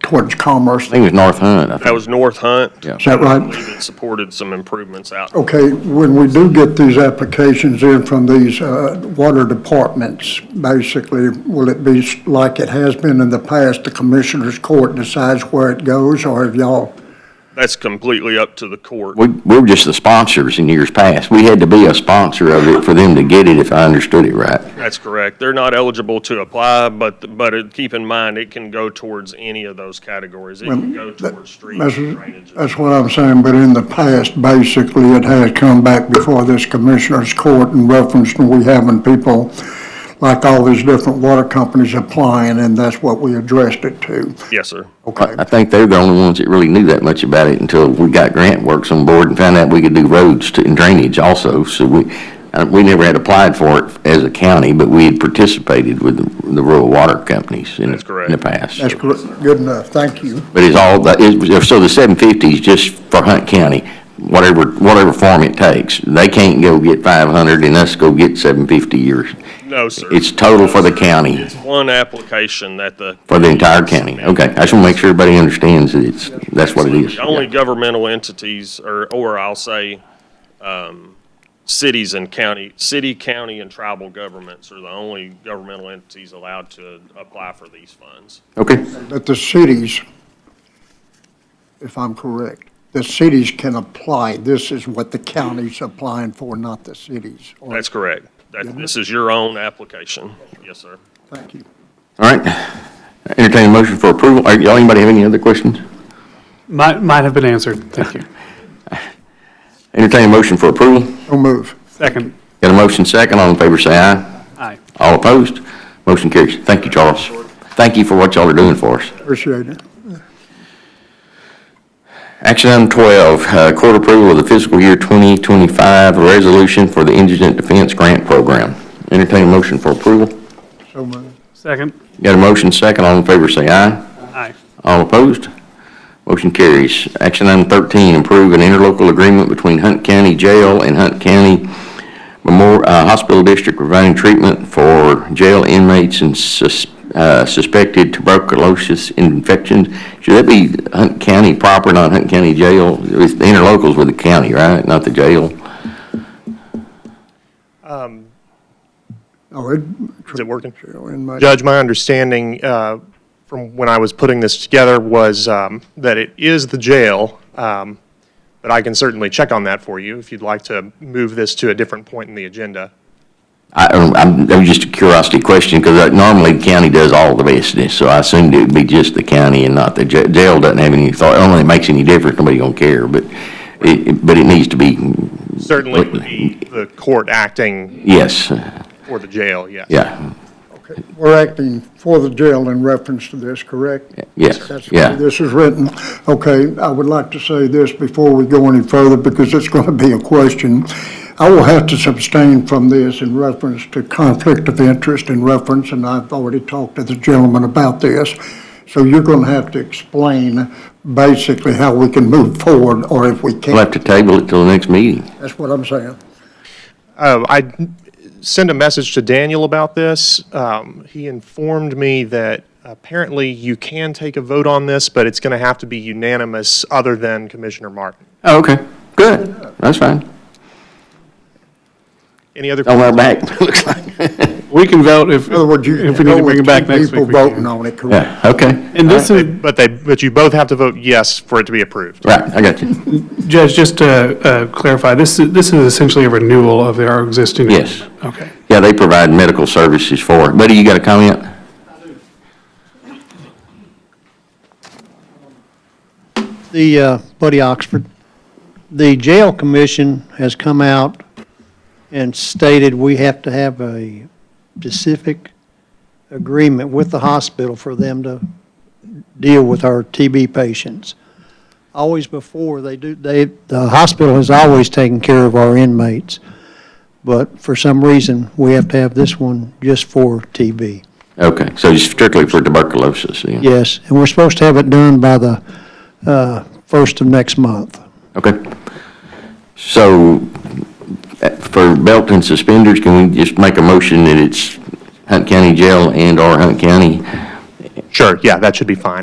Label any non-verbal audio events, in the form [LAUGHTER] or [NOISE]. towards Commerce. I think it was North Hunt. I That think. was North Hunt. Yeah. Is that I right? believe it supported some improvements out. Okay, when we do get these applications in from these uh, water departments, basically, will it be s- like it has been in the past, the commissioner's court decides where it goes, or have y'all, That's completely up to the court. We, we were just the sponsors in years past. We had to be a sponsor of it for them to get it, if I understood it right. That's correct. They're not eligible to apply, but, but it- keep in mind, it can go towards any of those categories. It can go towards street that's, drainage. that's what I'm saying, but in the past, basically, it has come back before this commissioner's court in reference to we having people, like all these different water companies applying, and that's what we addressed it to. Yes, sir. Okay. I think they're the only ones that really knew that much about it until we got Grant Works on board and found out we could do roads to- and drainage also. So we, uh, we never had applied for it as a county, but we had participated with the the rural water companies in, That's correct. in the past. That's gr- good enough, thank you. But it's all, the- it- so the seven fifty is just for Hunt County, whatever, whatever form it takes. They can't go get five hundred and us go get seven fifty or, No, sir. it's total for the county, It's one application that the. for the entire county. Okay, I just want to make sure everybody understands that it's, that's what it is. The Only governmental entities, or, or I'll say, um, cities and county, city, county, and tribal governments are the only governmental entities allowed to apply for these funds. Okay, that the cities, if I'm correct, the cities can apply. This is what the county's applying for, not the cities. Or- That's correct. That, this is your own application. Yes, sir. Thank you. all right. Entertaining motion for approval. Are y'all, anybody have any other questions? Might, might have been answered. [LAUGHS] Thank you. Entertaining motion for approval. So move. Second. Got a motion second, all in favor say aye. Aye. All opposed, motion carries. Thank you, Charles. Thank you for what y'all are doing for us. Appreciate it. Action item 12, uh, court approval of the fiscal year 2025 resolution for the Indigent Defense Grant Program. Entertain a motion for approval. So move. Second. Got a motion second, all in favor say aye. Aye. All opposed? Motion carries. Action item 13, approve an interlocal agreement between Hunt County Jail and Hunt County Memorial, uh, Hospital District providing treatment for jail inmates and sus- uh, suspected tuberculosis infections. Should that be Hunt County proper, not Hunt County Jail? It's the interlocals with the county, right, not the jail? Oh, it, Is it working? in my, Judge, my understanding uh, from when I was putting this together was um, that it is the jail, um, but I can certainly check on that for you if you'd like to move this to a different point in the agenda. I, I'm, that was just a curiosity question, because normally the county does all the business, so I assumed it'd be just the county and not the jail. Jail doesn't have any thought, I don't think it makes any difference, nobody gonna care, but it, it- but it needs to be, Certainly it would be the court acting yes, for the jail, yes. yeah, okay. We're acting for the jail in reference to this, correct? yes, That's the way yeah. this is written. Okay, I would like to say this before we go any further, because it's going to be a question. I will have to abstain from this in reference to conflict of interest in reference, and I've already talked to the gentleman about this. So you're going to have to explain basically how we can move forward, or if we We'll can't. have to table it till the next meeting. That's what I'm saying. Uh, I sent a message to Daniel about this. Um, He informed me that apparently you can take a vote on this, but it's going to have to be unanimous other than Commissioner Martin. Oh, okay, good, that's fine. Any other? On our back, [LAUGHS] looks like, We can vote if, In other words, you if we need go to bring with it back two next people week. we can. voting on it, correct? yeah, okay, And this is, But they, but you both have to vote yes for it to be approved. right, I got you, Judge, just to uh, clarify, this is, this is essentially a renewal of our existing. Yes. agreement. Okay. yeah, they provide medical services for it. Buddy, you got a comment? the, uh, Buddy Oxford, the jail commission has come out and stated we have to have a specific agreement with the hospital for them to deal with our TB patients. Always before, they do, they, the hospital has always taken care of our inmates, but for some reason, we have to have this one just for TB. Okay, so it's strictly for tuberculosis, yeah? Yes, and we're supposed to have it done by the, uh, first of next month. Okay. So uh, for belt and suspenders, can we just make a motion that it's Hunt County Jail and/or Hunt County Sure, yeah, that should be fine.